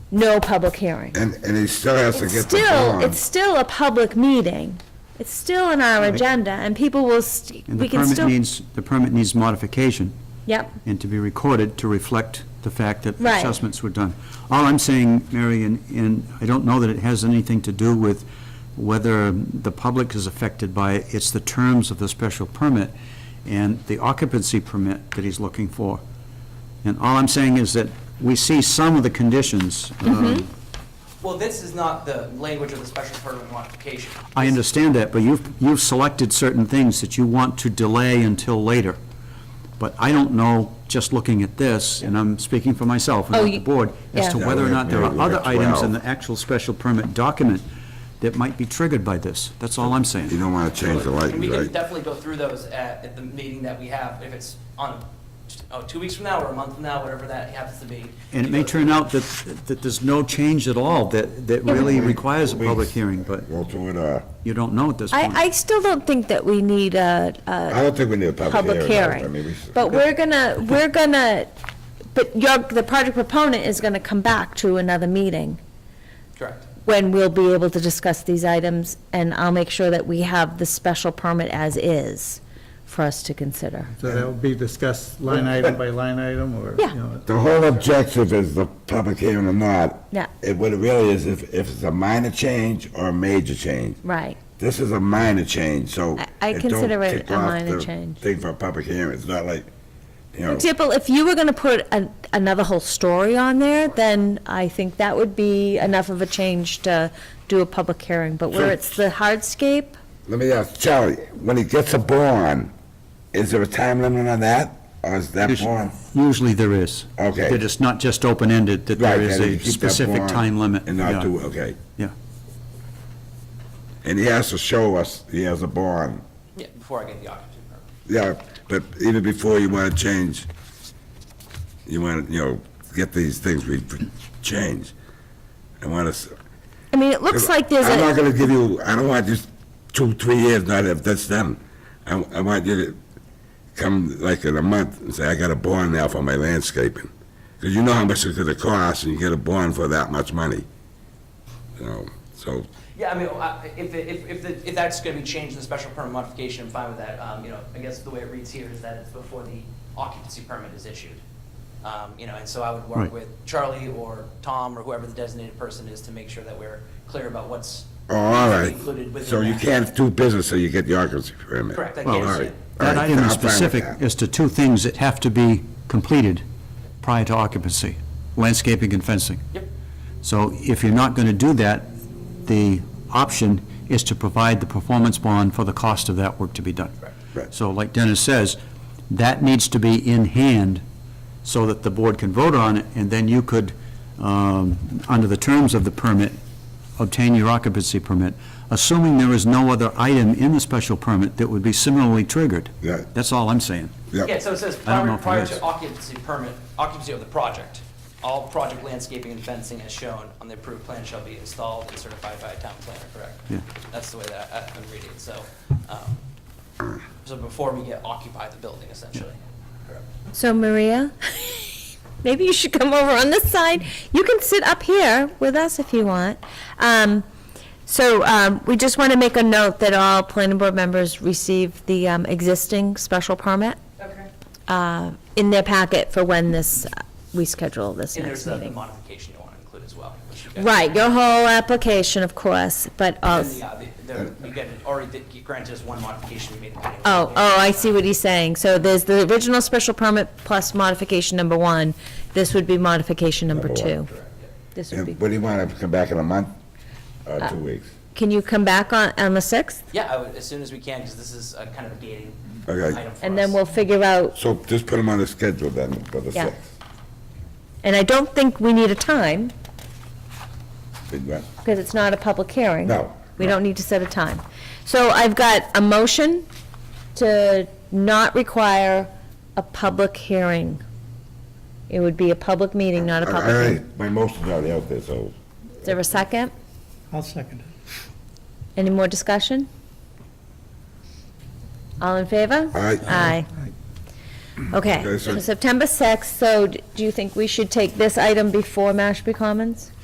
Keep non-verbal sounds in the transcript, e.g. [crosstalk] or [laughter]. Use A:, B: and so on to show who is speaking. A: no public hearing.
B: And, and he still has to
A: It's
B: get the
A: still,
B: bond.
A: it's still a public meeting. It's still on our agenda, and people will, st-
C: And
A: we
C: the
A: can
C: permit
A: still,
C: needs, the permit needs modification
A: yep,
C: and to be recorded to reflect the fact that
A: Right.
C: assessments were done. All I'm saying, Mary, and, and I don't know that it has anything to do with whether the public is affected by it, it's the terms of the special permit and the occupancy permit that he's looking for. And all I'm saying is that we see some of the conditions.
A: Mm-hmm.
C: um,
D: Well, this is not the language of the special permit modification.
C: I understand that, but you've, you've selected certain things that you want to delay until later. But I don't know, just looking at this, and I'm speaking for myself and
A: Oh,
C: not the
A: you-
C: board, as to
A: yeah.
C: whether or not there are
B: Yeah, we have
C: other items
B: 12.
C: in the actual special permit document that might be triggered by this. That's all I'm
B: You
C: saying.
B: don't want to change the
D: And we
B: lighting,
D: can
B: right?
D: definitely go through those at, at the meeting that we have, if it's on, oh, two weeks from now or a month from now, whatever that happens to be.
C: And it may turn out that, that there's no change at all that, that really requires a public hearing, but
B: We'll do it, uh,
C: you don't know at this point.
A: I, I still don't think that we need a, a
B: I don't think we need a
A: public
B: I mean,
A: hearing.
B: we-
A: But we're gonna, we're gonna, but your, the project proponent is gonna come back to another meeting
D: Correct.
A: when we'll be able to discuss these items, and I'll make sure that we have the special permit as is for us to consider.
E: So that would be discussed line item by line item, or,
A: Yeah.
E: you know,
B: The whole objective is the public hearing or not.
A: Yeah.
B: It, what it really is, if, if it's a minor change or a major change.
A: Right.
B: This is a minor change, so.
A: I- I
B: don't
A: consider it
B: kick
A: a
B: off
A: minor
B: the
A: change.
B: Thing for a public hearing, it's not like, you
A: For
B: know,
A: example, if you were going to put an- another whole story on there, then I think that would be enough of a change to do a public hearing. But where
B: Sure.
A: it's the hardscape,
B: let me ask Charlie, when he gets a bond, is there a time limit on that? Or is that
C: Usually-
B: bond?
C: Usually there is.
B: Okay.
C: That it's not just open-ended, that
B: Right,
C: there is
B: that you
C: a
B: keep that
C: specific
B: bond
C: time limit.
B: And
C: Yeah.
B: not do, okay.
C: Yeah.
B: And he has to show us he has a bond.
D: Yeah, before I get the occupancy permit.
B: Yeah, but even before you want to change, you want, to you know, get these things we change. I want to.
A: I mean, it looks like there's
B: I'm not
A: a,
B: going to give you, I don't want just two, three years, not if that's done. I, I want you to come like in a month and say, I got a bond now for my landscaping. Because you know how much it's going to cost and you get a bond for that much money. You know, so,
D: Yeah, I mean, I- if, it- if, if, the- if that's gonna be changed in the special permit modification, I'm fine with that. Um, you know, I guess the way it reads here is that it's before the occupancy permit is issued. Um, you know, and so I would
C: Right.
D: work with Charlie or Tom or whoever the designated person is to make sure that we're clear about what's
B: oh, all right.
D: included within that.
B: So you can't do business till you get the occupancy permit.
D: Correct, I
B: All
D: can't.
B: right, all
C: That
B: right,
C: item
B: I'm fine
C: is
B: with
C: specific
B: that.
C: as to two things that have to be completed prior to occupancy, landscaping and fencing.
D: Yep.
C: So if you're not going to do that, the option is to provide the performance bond for the cost of that work to be done.
B: Right.
C: So like Dennis says, that needs to be in hand so that the board can vote on it, and then you could, um, under the terms of the permit, obtain your occupancy permit, assuming there is no other item in the special permit that would be similarly triggered.
B: Yeah.
C: That's all I'm saying.
B: Yep.
D: Yeah, so it says
C: I don't know
D: prior
C: if it is.
D: prior to occupancy permit, occupancy of the project, all project landscaping and fencing as shown on the approved plan shall be installed and certified by a town planner, correct?
C: Yeah.
D: That's the way that I- I'm reading it, so, um, so before we get occupy the building essentially.
A: so Maria, [laughs] maybe you should come over on this side. You can sit up here with us if you want. Um, So um, we just want to make a note that all planning board members receive the um, existing special permit
D: Okay.
A: uh, in their packet for when this, we schedule this
D: And there's
A: next
D: the the
A: meeting.
D: modification you want to include as well. which you guys-
A: Right, your whole application, of course, but,
D: And
A: also.
D: the, uh, the- the- You got, already did- you granted us one modification we made. in the planning
A: Oh,
D: board.
A: oh, I see what he's saying. So there's the original special permit plus modification number one. This would be modification number
B: Number one,
A: two. This would be,
B: And what do you want, to come back in a month or two
A: Uh,
B: weeks?
A: can you come back on, on the 6th?
D: Yeah, I would- as soon as we can, because this is uh, kind of a gating
B: Okay.
D: item for
A: And
D: us.
A: then we'll figure out,
B: So just put them on the schedule then for the
A: Yeah.
B: sixth.
A: and I don't think we need a time,
B: Big one.
A: because it's not a public hearing.
B: No,
A: We
B: no.
A: don't need to set a time. So I've got a motion to not require a public hearing. It would be a public meeting, not a
B: All
A: public hearing.
B: right, my motion's already out there, so.
A: Is there a second?
E: I'll second it.
A: Any more discussion? All in favor?
B: All right.
A: Aye. Okay,
B: Okay, so-
A: so September 6th, so d- do you think we should take this item before Mashpee Commons?